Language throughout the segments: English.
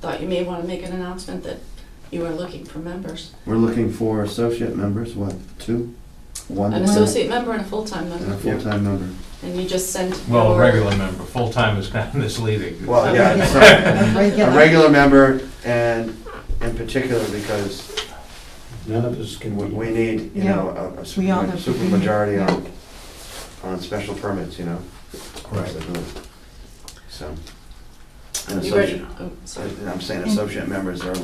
thought you may want to make an announcement that you are looking for members. We're looking for associate members, what, two? One An associate member and a full-time And a member, full-time member. and you just sent Well, a your- regular member, full-time is kind of misleading. Well, yeah, Okay. sorry. A Regular. regular member and in particular because None of us can we- wait. we need, you Yeah. know, a- a We all super have to super be- majority yeah. on, on special permits, you know? across the board. So. An You ready? associate, uh, Oh, sorry. I'm saying associate members are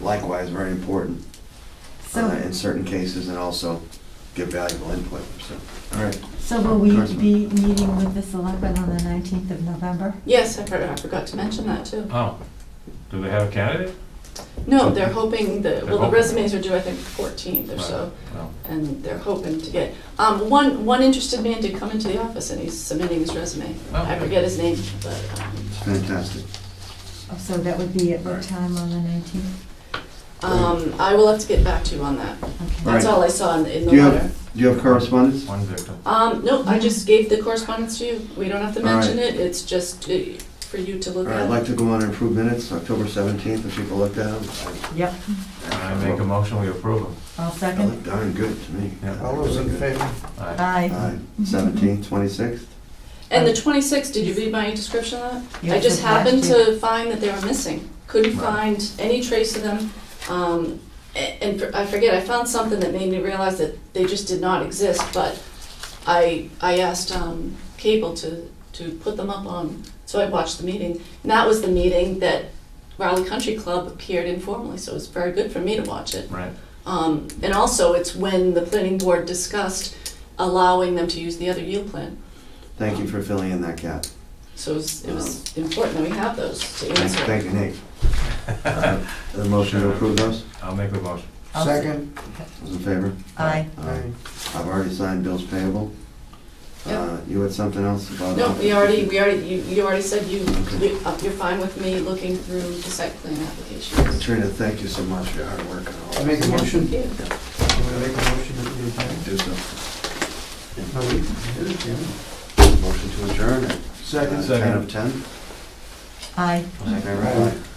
likewise very important uh, So, in certain cases and also give valuable input, so. All right. so will we Congressman. be meeting with the selectmen on the 19th of November? Yes, I forgot, I forgot to mention that too. Oh, do they have a candidate? No, they're hoping that, well, the hoping. resumes are due, I think, fourteenth or so, Well, and they're hoping to get, um, one, one interested man did come into the office and he's submitting his resume. I Okay. forget his name, but, um, Fantastic. Oh, So that would be at what time on the 19th? Um, I will have to get back to you on that. Okay. That's Right. all I saw in, in the Do you have- letter. Do you have correspondence? One victim. Um, no, I just gave the correspondence to you. We don't have to All right. mention it. It's just uh, for you to All look right, I'd at. like to go on and approve minutes, October 17th, if people looked at them. Yep, I make a motion, we approve them. I'll They second. look darn good to me. Yeah. All those in favor? Aye. Aye. Aye. 17th, 26th? And the 26th, did you read my description of Yeah, that? I just it's last happened year. to find that they were missing. Couldn't Right. find any trace of them. Um, a- and for- I forget, I found something that made me realize that they just did not exist, but I, I asked, um, cable to, to put them up on, so I watched the meeting. And that was the meeting that Raleigh Country Club appeared informally, so it was very good for me to watch it. Right. Um, and also, it's when the planning board discussed allowing them to use the other yield plan. Thank you for filling in that gap. So it was, it was important that we have those to Oh. Thank- answer. Thank you, Nate. Uh, The motion to approve those? I'll make the motion. I'll se- Second? Those in favor? Aye. Aye. I've already signed bills payable. Yep. Uh, You had something else about? uh, No, we already, we already, you, you already said you, you- uh, you're fine with me looking through the site plan applications. Katrina, thank you so much for your hard work and all. I make a motion. Thank you. I'm gonna make a motion that we adjourn. Do so. No, we did it, didn't we? Motion to adjourn at uh, Second? Second. 10 of 10? Aye. All in favor? Aye.